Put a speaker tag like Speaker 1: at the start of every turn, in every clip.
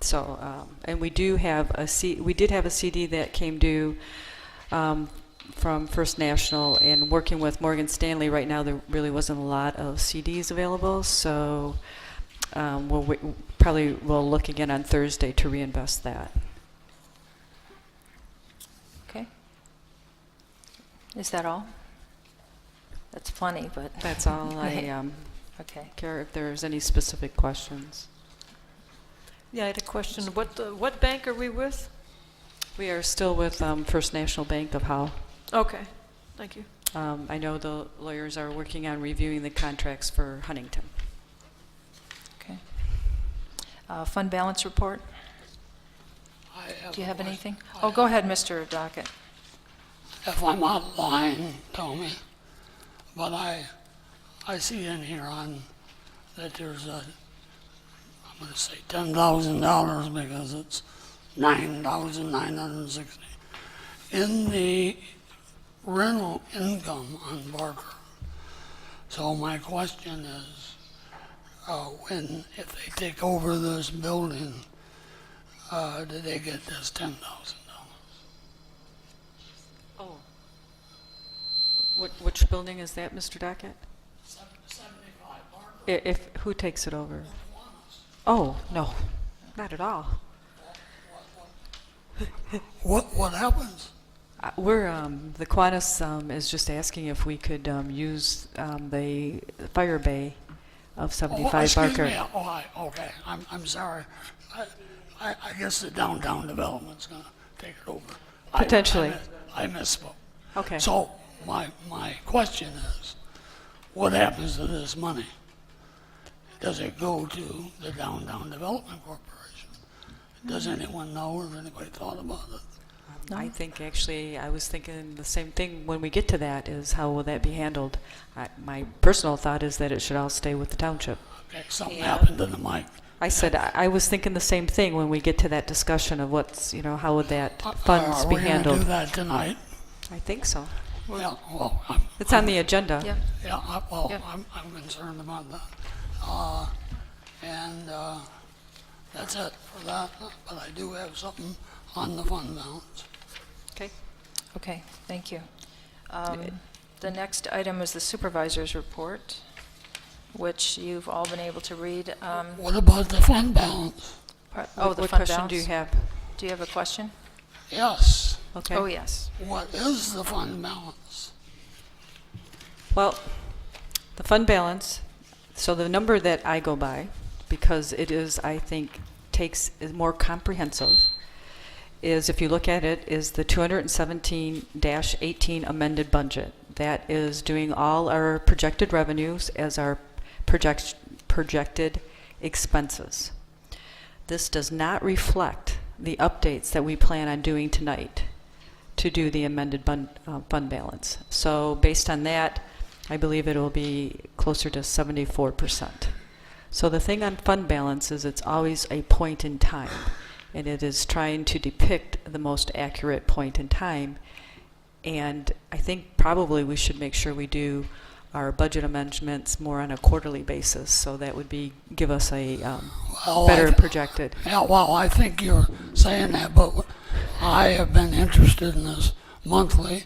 Speaker 1: So, um, and we do have a C, we did have a CD that came due um, from First National, and working with Morgan Stanley right now, there really wasn't a lot of CDs available, so um, we'll, wait- probably will look again on Thursday to reinvest that.
Speaker 2: Okay. Is that all? That's plenty, but.
Speaker 1: That's all I um,
Speaker 2: Okay.
Speaker 1: care, if there's any specific questions.
Speaker 3: Yeah, I had a question. What, uh, what bank are we with?
Speaker 1: We are still with um, First National Bank of Howe.
Speaker 3: Okay, thank you.
Speaker 1: Um, I know the lawyers are working on reviewing the contracts for Huntington.
Speaker 2: Okay. Uh, Fund balance report?
Speaker 4: I have
Speaker 2: Do you have
Speaker 4: a question.
Speaker 2: anything? Oh, go ahead, Mr. Dockett.
Speaker 4: If I'm not lying, tell me. But I, I see in here on, that there's a, I'm gonna say ten thousand dollars because it's nine thousand nine hundred and sixty. In the rental income on Barker. So my question is, uh, when, if they take over this building, uh, do they get this ten thousand dollars?
Speaker 1: Oh. Which building is that, Mr. Dockett?
Speaker 4: Seventy-five Barker.
Speaker 1: I- If, who takes it over? Oh, no, not at all.
Speaker 4: What, what happens?
Speaker 1: Uh, We're, um, the Qantas um, is just asking if we could um, use um, the fire bay of
Speaker 4: Oh,
Speaker 1: 75
Speaker 4: excuse
Speaker 1: Barker.
Speaker 4: me. Oh, I, okay, I'm, I'm sorry. I, I, I guess the downtown development's gonna take it over. I- I
Speaker 1: Potentially.
Speaker 4: mis- I misspoke.
Speaker 1: Okay.
Speaker 4: So my, my question is, what happens to this money? Does it go to the Downtown Development Corporation? Does anyone know or anybody thought about it?
Speaker 1: I think actually, I was thinking the same thing when we get to that, is how will that be handled? I- My personal thought is that it should all stay with the township.
Speaker 4: Okay, something happened to the mic.
Speaker 1: I said, I I was thinking the same thing when we get to that discussion of what's, you know, how would that
Speaker 4: Are-
Speaker 1: funds be
Speaker 4: Uh, Are we gonna do
Speaker 1: handled?
Speaker 4: that tonight?
Speaker 1: I think so.
Speaker 4: Well, well, I'm,
Speaker 1: It's on the agenda.
Speaker 2: Yeah.
Speaker 4: Yeah, I- well,
Speaker 2: Yeah.
Speaker 4: I'm, I'm concerned about that. Uh, And uh, that's it for that, but I do have something on the fund balance.
Speaker 1: Okay.
Speaker 2: Okay, thank you. Um, The next item is the supervisor's report, which you've all been able to read. Um,
Speaker 4: What about the fund balance?
Speaker 2: par- Oh, the
Speaker 1: What
Speaker 2: fund
Speaker 1: question do you
Speaker 2: balance?
Speaker 1: have?
Speaker 2: Do you have a question?
Speaker 4: Yes,
Speaker 1: Okay.
Speaker 2: Oh, yes.
Speaker 4: what is the fund balance?
Speaker 1: Well, the fund balance, so the number that I go by, because it is, I think, takes, is more comprehensive, is if you look at it, is the 217-18 amended budget. That is doing all our projected revenues as our project, projected expenses. This does not reflect the updates that we plan on doing tonight to do the amended bun- uh, fund balance. So based on that, I believe it will be closer to 74%. So the thing on fund balance is it's always a point in time, and it is trying to depict the most accurate point in time. And I think probably we should make sure we do our budget amendments more on a quarterly basis, so that would be, give us a um,
Speaker 4: Well, I
Speaker 1: better
Speaker 4: th-
Speaker 1: projected.
Speaker 4: Yeah, well, I think you're saying that, but I have been interested in this monthly.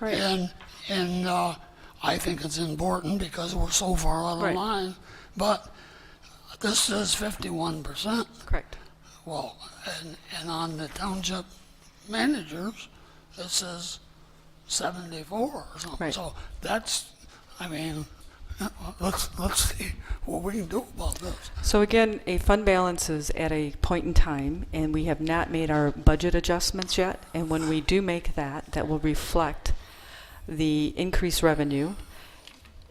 Speaker 1: Right.
Speaker 4: And, and uh, I think it's important because we're so far out
Speaker 1: Right.
Speaker 4: of line. But this is fifty-one percent,
Speaker 1: Correct.
Speaker 4: well, and, and on the township managers, it says seventy-four or something.
Speaker 1: Right.
Speaker 4: So that's, I mean, let's, let's see what we can do about this.
Speaker 1: So again, a fund balance is at a point in time, and we have not made our budget adjustments yet. And when we do make that, that will reflect the increased revenue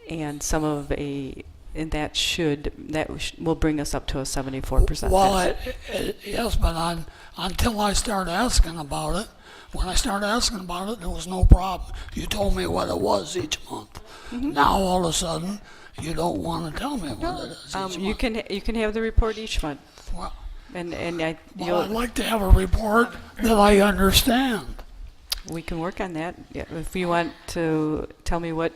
Speaker 1: and some of a, and that should, that sh- will bring us up to a 74%.
Speaker 4: Well,
Speaker 1: That's-
Speaker 4: I, I- yes, but on, until I started asking about it, when I started asking about it, there was no problem. You told me what it was each month.
Speaker 1: Mm-hmm.
Speaker 4: Now, all of a sudden, you don't want to tell me what it is
Speaker 1: Um,
Speaker 4: each
Speaker 1: You
Speaker 4: month.
Speaker 1: can, you can have the report each month,
Speaker 4: Well,
Speaker 1: and, and I,
Speaker 4: well, I'd
Speaker 1: you'll-
Speaker 4: like to have a report that I understand.
Speaker 1: we can work on that. Yeah, If you want to tell me what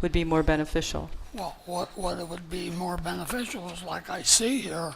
Speaker 1: would be more beneficial.
Speaker 4: Well, what, what it would be more beneficial is like I see here,